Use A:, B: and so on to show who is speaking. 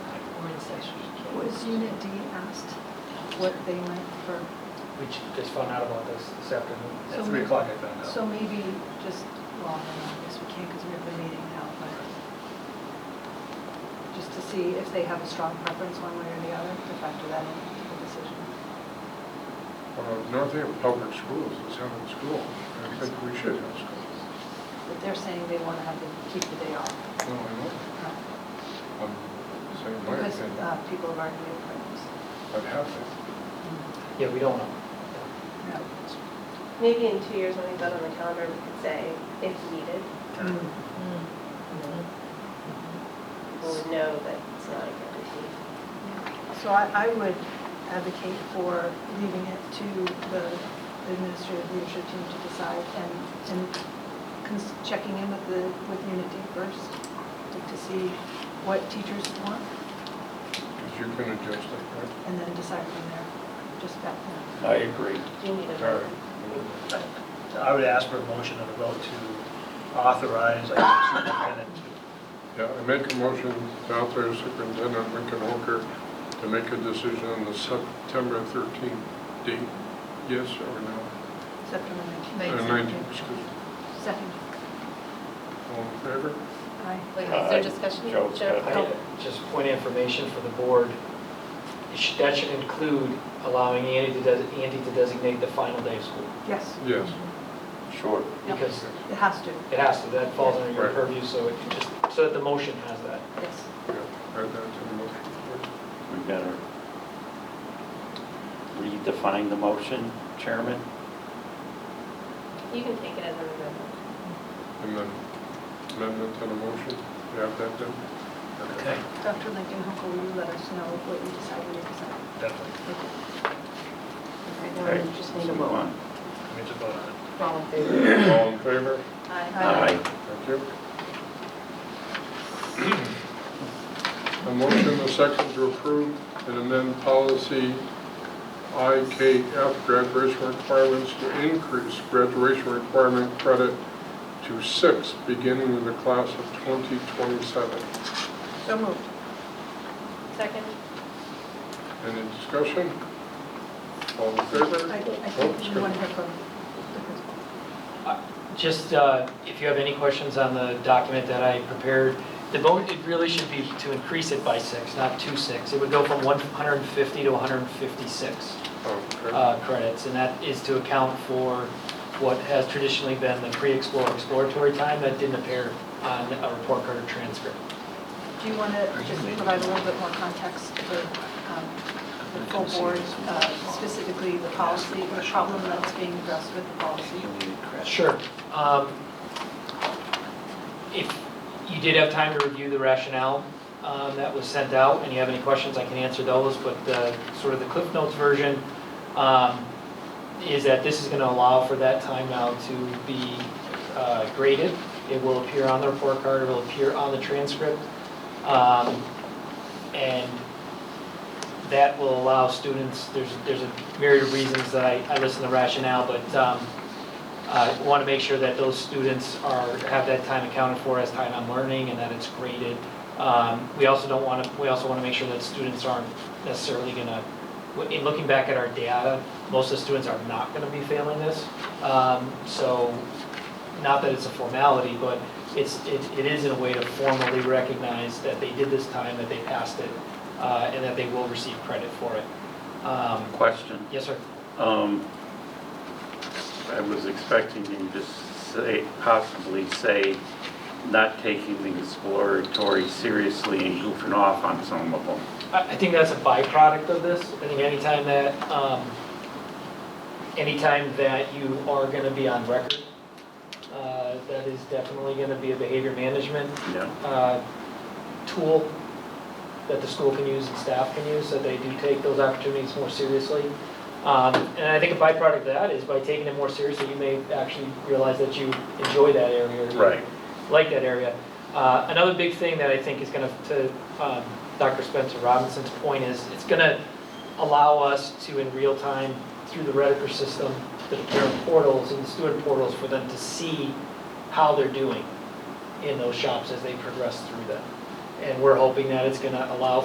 A: stations and so on.
B: Was Unit D asked what they meant for,
C: We ju- just found out about this this afternoon.
B: So
A: At three
B: we-
A: o'clock I found out.
B: so maybe just, well, I guess we can't because we have a meeting now, but just to see if they have a strong preference one way or the other, to factor that into the decision.
D: Uh, North Haven Public Schools is having school. I think we should have school.
B: But they're saying they want to have, the- keep the day off.
D: No, I know. I'm saying Um, my
B: Because uh,
D: opinion.
B: people have already made appointments.
D: I'd have to.
C: Yeah, we don't know.
E: Maybe in two years, when we vote on the calendar, we could say, if needed,
B: Mm.
E: we'll know that it's not a guarantee.
B: So I, I would advocate for leaving it to the administrative leadership team to decide and, and cons- checking in with the, with Unity first to see what teachers want
D: Because you can adjust it, right?
B: and then decide from there, just back then.
F: I agree.
E: Do you need a
F: Sorry.
E: vote?
A: I would ask for a motion and a vote to authorize, I guess, superintendent to,
D: Yeah, I make a motion to authorize Superintendent Lincoln Hooker to make a decision on the September 13th date. Yes or no?
B: September
D: Uh,
B: 19th.
D: 19th, excuse me.
B: Second,
D: All in favor?
B: aye.
G: Wait, is
F: Aye.
G: there discussion?
F: Joe's got it.
G: Joe?
C: Just point of information for the board, it should- that should include allowing Andy to, des- Andy to designate the final day of school.
B: Yes,
D: Yes.
F: Sure.
B: Yep.
C: Because
B: it has to,
C: it has to, that falls under your
D: Right.
C: purview, so it just, so that the motion has that.
B: yes.
D: Yeah, add that to the motion.
F: We better redefine the motion, Chairman.
E: You can take it as an amendment.
D: And then amendment to the motion, you have that done?
A: okay,
B: Dr. Lincoln Hooker, will you let us know what you decide when you decide?
A: definitely,
G: All right, now we just need a
F: Move
G: vote.
F: on.
A: we need to vote on it.
G: All in favor?
D: All in favor?
B: Aye.
F: Aye.
D: Thank you. A motion and a second to approve and amend policy IKF graduation requirements to increase graduation requirement credit to six, beginning with the class of 2027.
B: So moved.
E: Second?
D: Any discussion? All in favor?
B: I I
D: Oh,
B: think
D: excuse
B: we
D: me.
B: want to hear from the principal.
C: Just, uh, if you have any questions on the document that I prepared, the vote, it really should be to increase it by six, not two six. It would go from 150 to 156.
D: Oh, okay.
C: uh, credits, and that is to account for what has traditionally been the pre-explore exploratory time that didn't appear on a report card or transcript.
B: Do you want to just provide a little bit more context to the, um, the full board, uh, specifically the policy, the problem that's being addressed with the policy?
C: Sure. Um, If you did have time to review the rationale um, that was sent out, and you have any questions, I can answer those, but uh, sort of the Cliff Notes version um, is that this is going to allow for that time now to be uh, graded. It will appear on the report card, it will appear on the transcript. Um, And that will allow students, there's, there's a myriad of reasons that I, I listen to rationale, but um, I want to Uh, make sure that those students are, have that time accounted for as time on learning and that it's graded. Um, We also don't want to, we also want to make sure that students aren't necessarily going to, in looking back at our data, most of the students are not going to be failing this. Um, So, not that it's a formality, but it's, it it is in a way to formally recognize that they did this time, that they passed it, uh, and that they will receive credit for it. Um,
F: Question.
C: Yes, sir?
F: Um, I was expecting you to say, possibly say, not taking the exploratory seriously and goofing off on some of them.
C: I, I think that's a byproduct of this. I think anytime that, um, anytime that you are gonna be on record, uh, that is definitely gonna be a behavior management,
F: Yeah.
C: uh, tool that the school can use and staff can use, so they do take those opportunities more seriously. Um, and I think a byproduct of that is by taking it more seriously, you may actually realize that you enjoy that area. or you
F: Right.
C: like that area. Uh, Another big thing that I think is going to, to um, Dr. Spencer Robinson's point is, it's going to allow us to, in real time, through the Rediker system, the parent portals and the student portals, for them to see how they're doing in those shops as they progress through them. And we're hoping that it's going to allow